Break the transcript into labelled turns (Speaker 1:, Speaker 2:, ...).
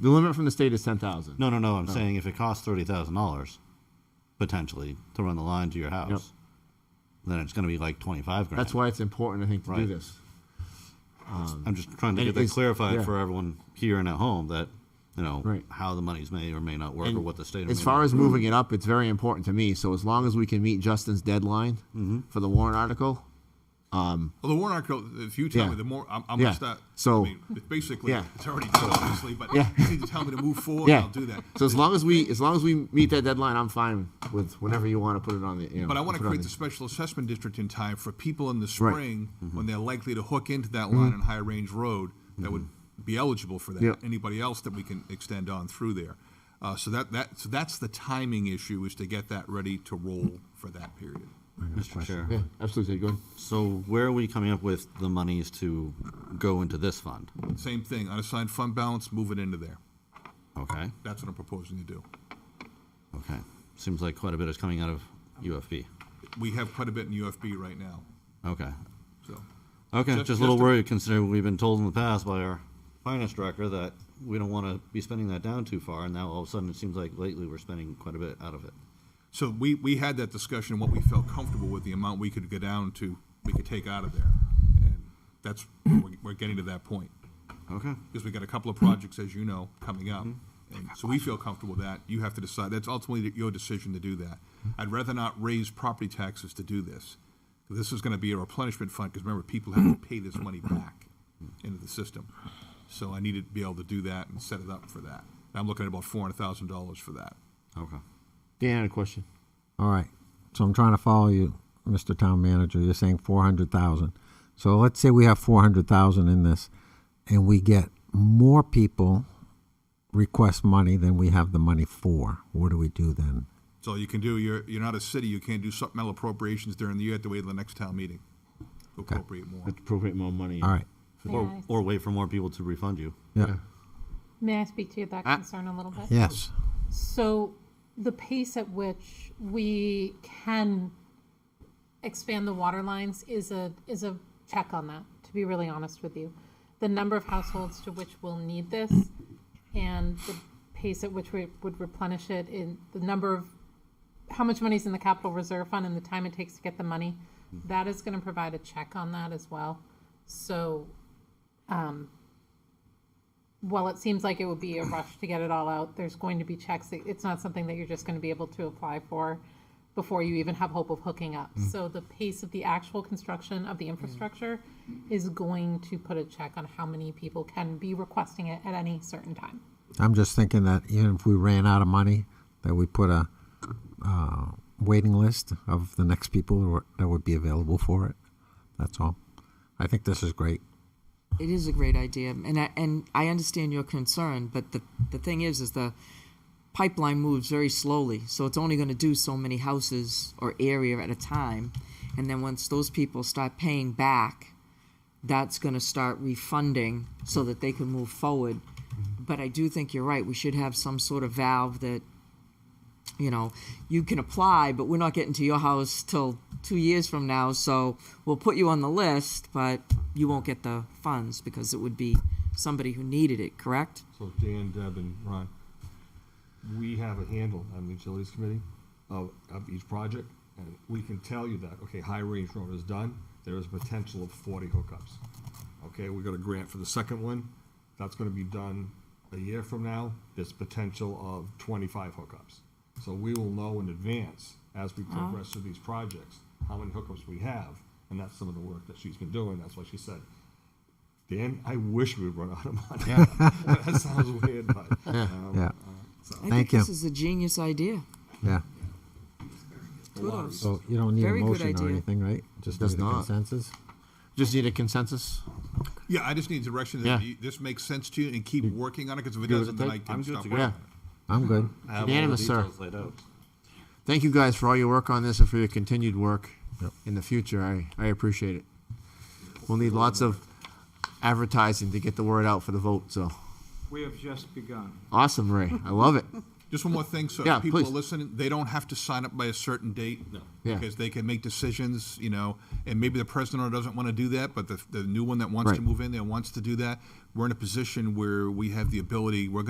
Speaker 1: The limit from the state is ten thousand.
Speaker 2: No, no, no. I'm saying if it costs thirty thousand dollars, potentially to run the line to your house, then it's going to be like twenty five grand.
Speaker 1: That's why it's important, I think, to do
Speaker 2: Right.
Speaker 1: this.
Speaker 2: I'm just trying
Speaker 1: And
Speaker 2: to get
Speaker 1: it
Speaker 2: that
Speaker 1: is-
Speaker 2: clarified
Speaker 1: yeah.
Speaker 2: for everyone here and at home that you know
Speaker 1: Right.
Speaker 2: how the monies may or may not work or
Speaker 1: And
Speaker 2: what the state. or
Speaker 1: As
Speaker 2: may
Speaker 1: far
Speaker 2: not-
Speaker 1: as moving it up, it's very important to me. So as long as we can meet Justin's deadline
Speaker 3: Mm-hmm.
Speaker 1: for the warrant article,
Speaker 3: Well, the warrant article, if you tell
Speaker 1: Yeah.
Speaker 3: me, the more I'm, I'm
Speaker 1: Yeah.
Speaker 3: gonna start.
Speaker 1: So-
Speaker 3: I mean, it's basically,
Speaker 1: Yeah.
Speaker 3: it's already done, obviously, but
Speaker 1: Yeah.
Speaker 3: you need to tell me to move forward.
Speaker 1: yeah.
Speaker 3: Oh, I'll do that.
Speaker 1: So as long as we as long as we meet that deadline, I'm fine with whenever you want to put it on the. You know,
Speaker 3: But I want to
Speaker 1: put it on
Speaker 3: create
Speaker 1: the-
Speaker 3: the special assessment district in time for people in the spring
Speaker 1: Mm-hmm.
Speaker 3: when they're likely to hook into that line on High Range Road that would
Speaker 1: Mm-hmm.
Speaker 3: be eligible for
Speaker 1: Yeah.
Speaker 3: that. Anybody else that we can extend on through there. Uh, so that, that, so that's the timing issue is to get that ready to roll for that period.
Speaker 2: Mr. Chair.
Speaker 1: Yeah, absolutely. Go ahead.
Speaker 2: So where are we coming up with the monies to go into this fund?
Speaker 3: Same thing, unassigned fund balance, move it into there.
Speaker 2: Okay.
Speaker 3: That's what I'm proposing to do.
Speaker 2: Okay. Seems like quite a bit is coming out of UFB.
Speaker 3: We have quite a bit in UFB right now,
Speaker 2: Okay.
Speaker 3: so.
Speaker 2: Okay. Just,
Speaker 3: Just-
Speaker 2: a little
Speaker 3: just a-
Speaker 2: worried considering we've been told in the past by our finance director that we don't want to be spending that down too far, and now all of a sudden it seems like lately we're spending quite a bit out of it.
Speaker 3: So we, we had that discussion, what we felt comfortable with, the amount we could go down to, we could take out of there. And that's, we're, we're getting to that point.
Speaker 2: Okay.
Speaker 3: Because we got a couple of projects, as you know, coming up. And so we feel comfortable with that. You have to decide, that's ultimately your decision to do that. I'd rather not raise property taxes to do this. This is gonna be a replenishment fund, because remember, people have to pay this money back into the system. So I needed to be able to do that and set it up for that. And I'm looking at about four hundred thousand dollars for that.
Speaker 2: Okay.
Speaker 1: Dan had a question.
Speaker 4: All right, so I'm trying to follow you, Mr. Town Manager. You're saying four hundred thousand. So let's say we have four hundred thousand in this, and we get more people request money than we have the money for. What do we do then?
Speaker 3: So you can do, you're, you're not a city, you can't do supplemental appropriations during the year, you have to wait till the next town meeting to appropriate more.
Speaker 1: Appropriate more money.
Speaker 4: All right,
Speaker 2: Or, or wait for more people to refund you.
Speaker 4: yeah,
Speaker 5: May I speak to that concern a little bit?
Speaker 4: yes,
Speaker 5: So the pace at which we can expand the water lines is a, is a check on that, to be really honest with you. The number of households to which we'll need this and the pace at which we would replenish it in the number of, how much money's in the capital reserve fund and the time it takes to get the money, that is gonna provide a check on that as well. So while it seems like it would be a rush to get it all out, there's going to be checks. It- It's not something that you're just going to be able to apply for before you even have hope of hooking up. So the pace of the actual construction of the infrastructure is going to put a check on how many people can be requesting it at any certain time.
Speaker 4: I'm just thinking that even if we ran out of money, that we put a uh, waiting list of the next people who are- that would be available for it. That's all. I think this is great.
Speaker 6: It is a great idea, and I, and I understand your concern, but the, the thing is, is the pipeline moves very slowly, so it's only gonna do so many houses or area at a time. And then once those people start paying back, that's gonna start refunding so that they can move forward. But I do think you're right, we should have some sort of valve that, you know, you can apply, but we're not getting to your house till two years from now, so we'll put you on the list, but you won't get the funds because it would be somebody who needed it, correct?
Speaker 7: So Dan, Deb, and Ron, we have a handle on the utilities committee of, of each project, and we can tell you that, okay, High Range Road is done, there is potential of forty hookups. Okay, we got a grant for the second one, that's gonna be done a year from now, there's potential of twenty-five hookups. So we will know in advance, as we progress through these projects, how many hookups we have, and that's some of the work that she's been doing, that's why she said, Dan, I wish we'd run out of money. that sounds weird, but um,
Speaker 4: Yeah.
Speaker 7: so.
Speaker 6: I
Speaker 4: Thank
Speaker 6: think
Speaker 4: you.
Speaker 6: this is a genius idea.
Speaker 4: Yeah.
Speaker 6: Kudos.
Speaker 4: So you don't need
Speaker 6: Very
Speaker 4: a
Speaker 6: good
Speaker 4: motion or
Speaker 6: idea.
Speaker 4: anything, right? Just
Speaker 1: Does
Speaker 4: need a
Speaker 1: not.
Speaker 4: consensus?
Speaker 1: Just need a consensus.
Speaker 3: Yeah, I just need direction
Speaker 1: Yeah.
Speaker 3: that you- this makes sense to you and keep working on it, because if it
Speaker 1: good with
Speaker 3: doesn't,
Speaker 1: the
Speaker 3: then I
Speaker 1: type?
Speaker 3: can
Speaker 2: I'm good
Speaker 3: stop
Speaker 2: to
Speaker 3: working
Speaker 2: go.
Speaker 3: on it.
Speaker 4: I'm good.
Speaker 2: I have all the
Speaker 1: Unanimous, sir.
Speaker 2: details laid out.
Speaker 1: Thank you guys for all your work on this and for your continued work in the future. I, I appreciate it. We'll need lots of advertising to get the word out for the vote. So
Speaker 8: We have just begun.
Speaker 1: awesome, Ray. I love it.
Speaker 3: Just one more thing, so
Speaker 1: Yeah,
Speaker 3: if people are
Speaker 1: please.
Speaker 3: listening, they don't have to sign up by a certain date. No.
Speaker 1: Yeah.
Speaker 3: Because they can make decisions, you know, and maybe the president doesn't want to do that, but the, the new one that wants to
Speaker 1: Right.
Speaker 3: move in there wants to do that. We're in a position where we have the ability, we're